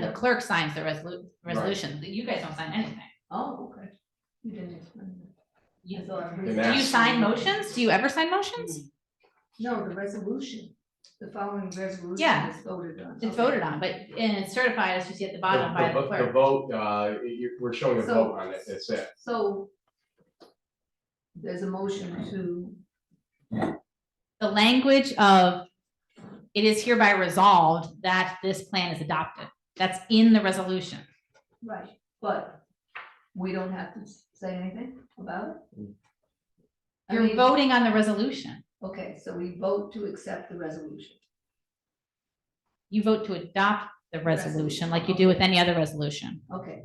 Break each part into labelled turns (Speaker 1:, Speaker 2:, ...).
Speaker 1: the clerk signs the resolu-
Speaker 2: Right.
Speaker 1: resolution, you guys don't sign anything.
Speaker 3: Oh, okay. You didn't explain
Speaker 1: You-
Speaker 2: And
Speaker 3: that.
Speaker 1: Do you
Speaker 2: that's-
Speaker 1: sign motions? Do you ever sign motions?
Speaker 3: No, the resolution, the following resolution
Speaker 1: Yeah.
Speaker 3: is voted on.
Speaker 1: It's voted on, but, and it's certified, as you see at the bottom by the
Speaker 2: vo- The
Speaker 1: clerk.
Speaker 2: vote, uh, you, we're showing a
Speaker 3: So-
Speaker 2: vote on it, that's it.
Speaker 3: So there's a motion to,
Speaker 1: The language of, it is hereby resolved that this plan is adopted. That's in the resolution.
Speaker 3: right, but we don't have to say anything about it? I
Speaker 1: You're
Speaker 3: mean,
Speaker 1: voting on the resolution.
Speaker 3: Okay, so we vote to accept the resolution.
Speaker 1: You vote to adopt the resolution like you do with any other resolution.
Speaker 3: Okay.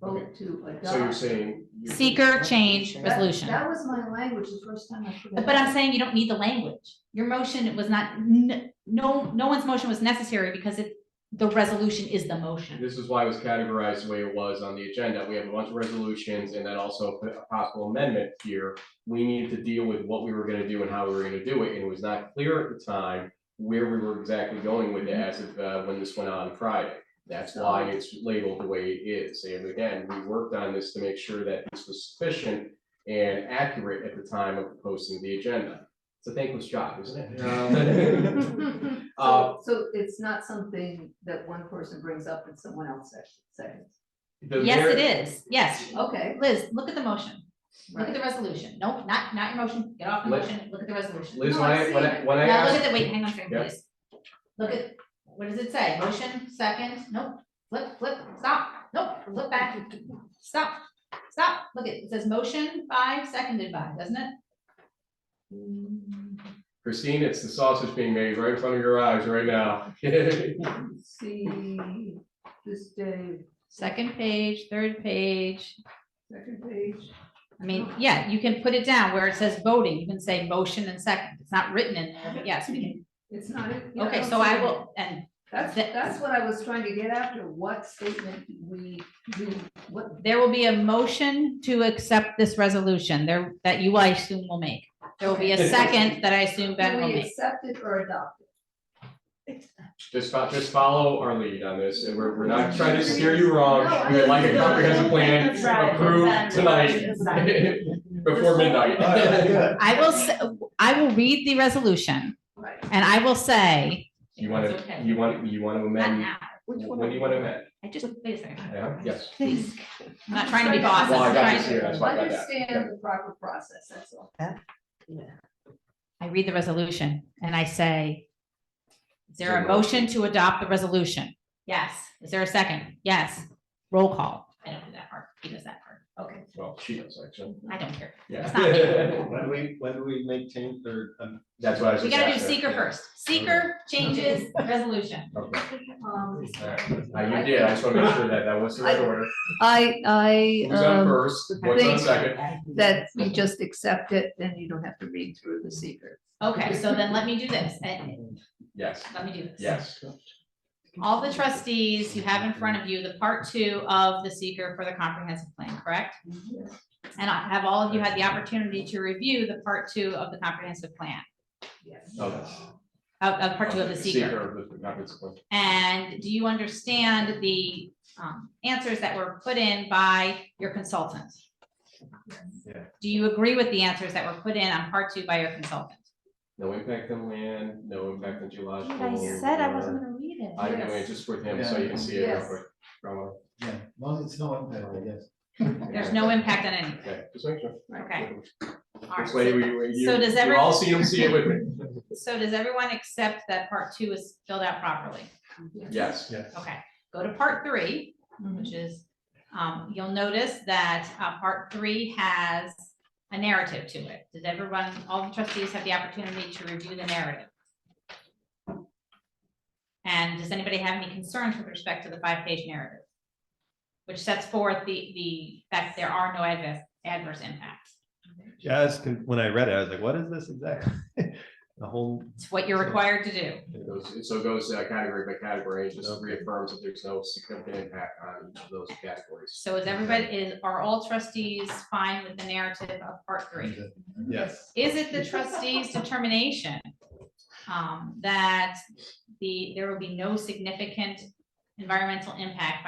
Speaker 3: Vote to adopt.
Speaker 2: So you're saying. you-
Speaker 1: Seeker change
Speaker 3: That-
Speaker 1: resolution.
Speaker 3: That was my language the first time I. put it
Speaker 1: But I'm
Speaker 3: out.
Speaker 1: saying you don't need the language. Your motion was not, n- no, no one's motion was necessary because it, the resolution is the motion.
Speaker 2: This is why it was categorized the way it was on the agenda. We have a bunch of resolutions and then also put a possible amendment here. We needed to deal with what we were gonna do and how we were gonna do it, and it was not clear at the time where we were exactly going with it as of, uh, when this went on Friday. That's why it's labeled the way it is. And again, we worked on this to make sure that this was sufficient and accurate at the time of posting the agenda. It's a thankless job, isn't it?
Speaker 1: mm-hmm.
Speaker 2: Uh,
Speaker 3: So, so it's not something that one person brings up and someone else says- seconds.
Speaker 2: the
Speaker 1: Yes,
Speaker 2: ver-
Speaker 1: it is. Yes.
Speaker 3: Okay,
Speaker 1: Liz, look at the motion. Look at
Speaker 3: right.
Speaker 1: the resolution. Nope, not, not your motion. Get off the
Speaker 2: Liz-
Speaker 1: motion. Look at the resolution.
Speaker 2: Liz,
Speaker 3: No,
Speaker 2: when
Speaker 3: I've
Speaker 2: I, when I,
Speaker 3: seen it.
Speaker 2: when I
Speaker 1: Now, look
Speaker 2: asked.
Speaker 1: at the, wait, hang on a second,
Speaker 2: Yeah.
Speaker 1: please. Look at, what does it say? Motion, second, nope, flip, flip, stop, nope, flip back, stop, stop. Look at, it says motion by, seconded by, doesn't it?
Speaker 2: Christine, it's the sausage being made right in front of your eyes right now.
Speaker 3: See, this day,
Speaker 1: Second page, third page.
Speaker 3: second page.
Speaker 1: I mean, yeah, you can put it down where it says voting. You can say motion and second. It's not written in there, but yes, we
Speaker 3: It's not. it-
Speaker 1: can.
Speaker 3: yeah,
Speaker 1: Okay,
Speaker 3: don't
Speaker 1: so
Speaker 3: see
Speaker 1: I
Speaker 3: it.
Speaker 1: will, and
Speaker 3: That's,
Speaker 1: that-
Speaker 3: that's what I was trying to get after, what statement we do, what,
Speaker 1: There will be a motion to accept this resolution there that you, I assume, will make. There will be a second that I assume Ben
Speaker 3: do
Speaker 1: will
Speaker 3: we
Speaker 1: make.
Speaker 3: accept it or adopt it?
Speaker 2: Just fo- just follow our lead on this, and we're, we're not trying to steer you wrong,
Speaker 3: No, I-
Speaker 2: we would like a comprehensive plan
Speaker 4: That's right.
Speaker 2: approved
Speaker 4: That's
Speaker 2: tonight. Before midnight.
Speaker 1: I will, s- I will read the resolution
Speaker 3: Right.
Speaker 1: and I will say.
Speaker 2: You wanna,
Speaker 1: It's okay.
Speaker 2: you want, you wanna
Speaker 1: Not
Speaker 2: amend,
Speaker 1: now.
Speaker 2: when do you wanna amend?
Speaker 1: I just, wait a second.
Speaker 2: Yeah, yes.
Speaker 1: Please. I'm not trying to be boss.
Speaker 2: Well, I
Speaker 1: I'm
Speaker 2: got
Speaker 1: trying
Speaker 2: this here,
Speaker 1: to-
Speaker 2: that's why I got that.
Speaker 3: Understand the proper process, that's all.
Speaker 1: I read the resolution and I say, is there a
Speaker 2: Zero.
Speaker 1: motion to adopt the resolution? Yes. Is there a second? Yes. Roll call. I don't do that part. He does that part. Okay.
Speaker 2: Well, she does, actually,
Speaker 1: I don't care. It's not
Speaker 2: yeah.
Speaker 5: When we, when we make change or, um,
Speaker 2: That's what I was
Speaker 1: We
Speaker 2: just
Speaker 1: gotta do
Speaker 2: asking.
Speaker 1: seeker first. Seeker changes resolution.
Speaker 2: Okay,
Speaker 3: Um,
Speaker 2: all right. Uh, you did, I just wanna make sure that that was the right order.
Speaker 3: I, I,
Speaker 2: Who's on
Speaker 3: um,
Speaker 2: first, what's on
Speaker 3: think-
Speaker 2: second?
Speaker 3: that you just accept it, then you don't have to read through the secret.
Speaker 1: Okay, so then let me do this. and-
Speaker 2: Yes,
Speaker 1: Let me do this.
Speaker 2: yes.
Speaker 1: All the trustees you have in front of you, the part two of the seeker for the comprehensive plan, correct? And I have all of you had the opportunity to review the part two of the comprehensive plan,
Speaker 3: Yes.
Speaker 2: Oh, that's-
Speaker 1: of, of part two of the seeker.
Speaker 2: of the comprehensive plan.
Speaker 1: And do you understand the um, answers that were put in by your consultant?
Speaker 5: Yeah.
Speaker 1: Do you agree with the answers that were put in on part two by your consultant?
Speaker 2: No impact on land, no impact on geological.
Speaker 1: gonna read it.
Speaker 2: I know, it's just for him, so you can see it real quick. Bravo.
Speaker 5: yeah, no, it's no impact, I guess.
Speaker 1: There's no impact on anything,
Speaker 2: Okay, just make sure.
Speaker 1: okay? All
Speaker 2: This
Speaker 1: right.
Speaker 2: way we, we, you,
Speaker 1: So does
Speaker 2: you all
Speaker 1: everyone-
Speaker 2: see him, see it with me.
Speaker 1: So does everyone accept that part two is filled out properly?
Speaker 2: Yes,
Speaker 1: Okay, go to part three, which is, um, you'll notice that, uh, part three has a narrative to it. Did everyone, all the trustees have the opportunity to review the narrative? And does anybody have any concerns with respect to the five-page narrative? Which sets forth the, the fact there are no adverse, adverse impacts.
Speaker 6: Yeah, I was con- when I read it, I was like, what is this exactly? The whole,
Speaker 1: It's what you're required to do.
Speaker 2: it goes, so it goes uh, category by category, it just reaffirms that there's no significant impact on each of those categories.
Speaker 1: So is everybody, is, are all trustees fine with the narrative of part three?
Speaker 6: yes,
Speaker 1: Is it the trustees' determination um, that the, there will be no significant environmental impact